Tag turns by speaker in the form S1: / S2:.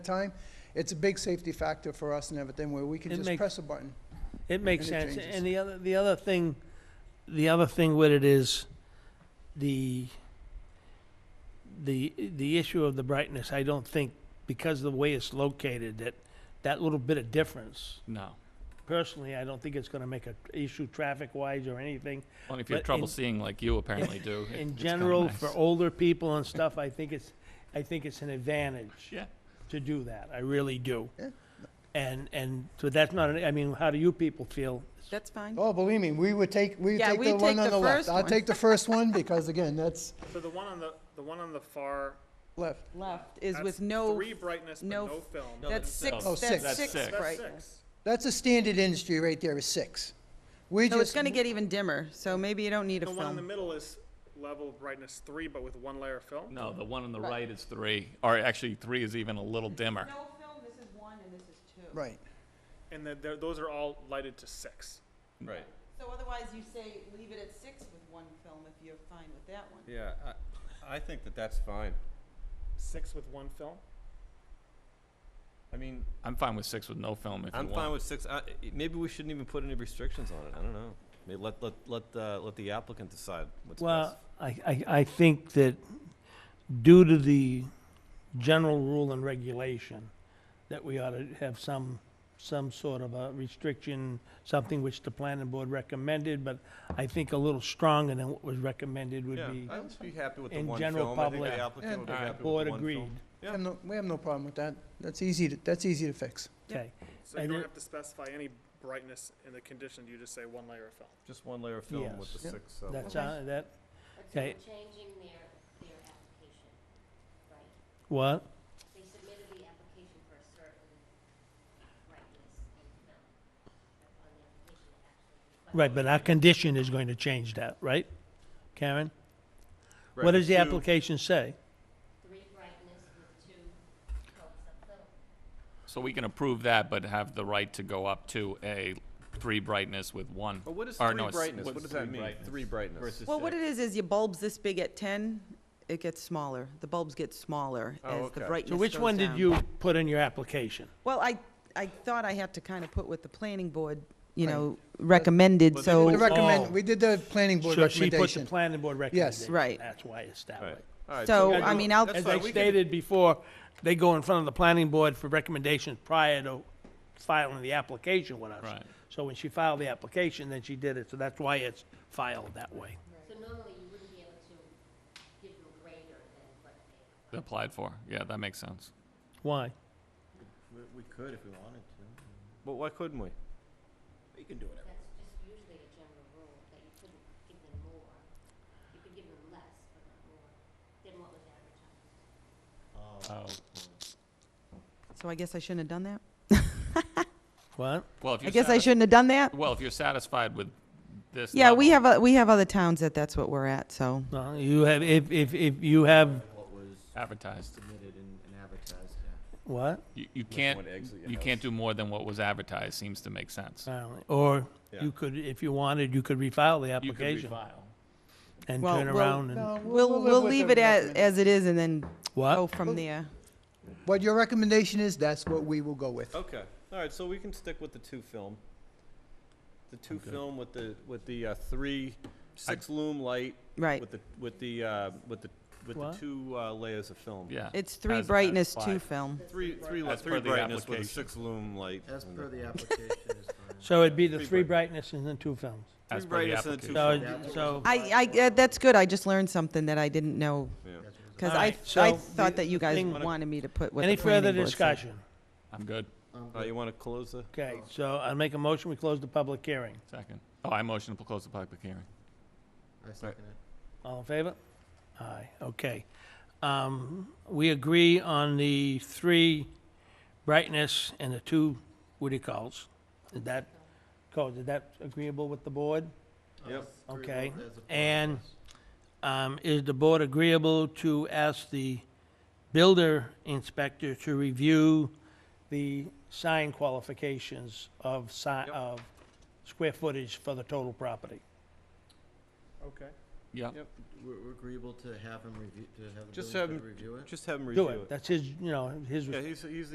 S1: time, it's a big safety factor for us and everything, where we can
S2: It
S1: just
S2: make-
S1: press a button.
S2: It makes
S1: And it
S2: sense.
S1: changes.
S2: And the other, the other thing, the other thing with it is the, the, the issue of the brightness, I don't think, because of the way it's located, that, that little bit of difference,
S3: No.
S2: personally, I don't think it's gonna make a issue traffic-wise or anything.
S3: Well, if you have
S2: But
S3: trouble
S2: in-
S3: seeing like you apparently do. it-
S2: In
S3: it's kinda
S2: general, for
S3: nice.
S2: older people and stuff, I think it's, I think it's an advantage
S3: Yeah.
S2: to do that. I really do.
S1: Yeah.
S2: And, and, so that's not, an- I mean, how do you people feel?
S4: That's fine.
S1: Oh, believe me, we would take, we would
S4: Yeah,
S1: take
S4: we
S1: the one
S4: take
S1: on
S4: the
S1: the left.
S4: first
S1: I'll
S4: one.
S1: take the first one, because again, that's
S5: So the one on the, the one on the far.
S1: left.
S4: Left is
S5: that's
S4: with no,
S5: Three brightness, but
S4: no
S5: no film.
S4: that's six,
S1: Oh, six.
S4: that's
S3: That's
S4: six
S3: six.
S5: That's
S4: brightness.
S5: six.
S1: That's a standard industry right there, is six. We
S4: So it's
S1: just,
S4: gonna get even dimmer, so maybe you don't need a
S5: The one in the
S4: film.
S5: middle is level brightness three, but with one layer of film.
S3: No, the one on the right is three, or actually three is even a little dimmer.
S4: film, this is one and this is two.
S1: right.
S5: And then there- those are all lighted to six.
S6: Right,
S4: So otherwise you say leave it at six with one film if you're fine with that one.
S6: yeah, I, I think that that's fine.
S5: Six with one film?
S6: I mean,
S3: I'm fine with six with no film if you
S6: I'm
S3: want.
S6: fine with six, I, i- maybe we shouldn't even put any restrictions on it, I don't know. Maybe let, let, let, uh, let the applicant decide what's best.
S2: Well, I, I, I think that due to the general rule and regulation, that we ought to have some, some sort of a restriction, something which the planning board recommended, but I think a little stronger than what was recommended would
S6: Yeah,
S2: be,
S6: I would be happy with the
S2: in
S6: one
S2: general
S6: film, I think
S2: public.
S6: the applicant
S1: And-
S6: would be
S3: Alright.
S6: happy with
S2: board
S6: the one film.
S2: agreed.
S1: We have no, we have no problem with that. That's easy to, that's easy to fix.
S2: Okay,
S5: So you
S2: And
S5: don't
S2: it-
S5: have to specify any brightness in the condition, you just say one layer of film.
S6: Just one layer of film with the
S2: Yes.
S1: Yep.
S6: six, so.
S2: that's, uh, that,
S7: But
S2: Okay.
S7: they're changing their, their application, right?
S2: what?
S7: They submitted the application for a certain brightness and amount on the application it actually requires.
S2: Right, but our condition is going to change that, right? Karen? What
S6: Right,
S2: does the
S6: two-
S2: application say?
S7: Three brightness with two coats of film.
S3: So we can approve that, but have the right to go up to a three brightness with one.
S6: But what is
S3: or
S6: three
S3: no, s-
S6: brightness,
S3: what's
S6: what does that
S3: three
S6: mean,
S3: brightness?
S6: three brightness?
S3: Versus
S4: Well, what
S3: six.
S4: it is, is your bulb's this big at ten, it gets smaller. The bulbs get smaller
S6: Oh,
S4: as
S6: okay.
S4: the
S6: So
S4: brightness
S2: So which
S4: goes
S2: one did
S4: down.
S2: you put in your application?
S4: Well, I, I thought I had to kind of put what the planning board, you
S1: Right.
S4: know, recommended,
S6: But-
S1: We
S4: so.
S2: Oh.
S1: recommend, we did the planning board
S2: So she put the
S1: recommendation.
S2: planning board
S1: Yes.
S2: recommendation.
S4: Right.
S2: That's why it's that way.
S6: Alright, alright.
S4: So,
S6: we
S2: I
S6: can do-
S4: mean, I'll-
S6: that's
S2: As I
S6: fine, we can-
S2: stated before, they go in front of the planning board for recommendations prior to filing the application with us.
S3: Right.
S2: So when she filed the application, then she did it, so that's why it's filed that way.
S7: So normally you wouldn't be able to give them greater than what they
S3: They Applied for, yeah, that makes sense.
S2: Why?
S6: We we could if we wanted to. But why couldn't we? We can do it.
S7: That's just usually a general rule, that you couldn't give them more. You could give them less, but not more, than what was advertised.
S4: So I guess I shouldn't have done that?
S2: What?
S3: Well, if
S4: I
S3: you're
S4: guess I
S3: satis-
S4: shouldn't have done that?
S3: Well, if you're satisfied with this.
S4: Yeah, we
S3: level-
S4: have, o- we have other towns that that's what we're at, so.
S2: No, you have, if, if, if you have,
S8: what was
S3: Advertised.
S8: submitted and and advertised, yeah.
S2: what?
S3: You, you can't,
S6: one exit your
S3: you
S6: house.
S3: can't do more than what was advertised, seems to make sense.
S2: Filing. Or
S6: Yeah.
S2: you could, if you wanted, you could refile the
S3: You could
S2: application
S3: refile.
S2: and
S4: Well,
S2: turn
S4: well,
S2: around and,
S1: No,
S4: We'll, oh.
S1: live
S4: we'll
S1: with
S4: leave
S1: the
S4: it as,
S1: recommend-
S4: as it is and then go
S2: what?
S4: from there.
S1: What your recommendation is, that's what we will go with.
S6: Okay, all right, so we can stick with the two film. The two film with the, with the, uh, three, six lume light.
S4: Right.
S6: With the, with the, uh, with the, with the
S2: What?
S6: two, uh, layers of film.
S3: Yeah.
S4: It's three
S3: As- as
S4: brightness, two
S3: applied.
S4: film.
S6: Three, three, li-
S3: As per
S6: three
S3: the
S6: brightness with a
S3: application.
S6: six lume light.
S8: As
S6: and
S8: per
S6: the-
S8: the application is fine.
S2: So it'd be the
S6: Three
S2: three brightnesses and two films.
S3: As
S6: Three
S3: per the
S6: brightness and the two
S3: application.
S2: So, so,
S8: Yeah.
S4: I, I, uh, that's good, I just learned something that I didn't know,
S6: Yeah.
S4: because
S2: All
S4: I,
S2: right,
S4: I
S2: so
S4: thought
S2: the-
S4: that you
S2: the
S4: guys
S2: thing-
S4: wanted me to put what the
S2: any further
S4: planning board said.
S2: discussion?
S3: I'm good,
S8: Um,
S6: All right, Uh, you wanna close the,
S2: Okay, so I make a motion, we close the public hearing.
S3: second. Oh, I motion to close the public hearing.
S8: I second it.
S2: All in favor? Aye, okay. Um, we agree on the three brightness and the two, what do you call it? Did that, Cole, did that agreeable with the board?
S6: Yep.
S8: Three
S2: Okay,
S8: vote as a
S2: and-
S8: process.
S2: Um, is the board agreeable to ask the builder inspector to review the sign qualifications of si- of square footage for the total property?
S5: Okay.
S3: Yeah,
S6: Yep.
S8: We're we're agreeable to have him review, to have the
S6: Just
S8: building
S6: have
S8: inspector
S6: him-
S8: review it?
S6: just have him
S2: Do
S6: review
S2: it,
S6: it.
S2: that's his, you know, his
S6: Yeah, he's, he's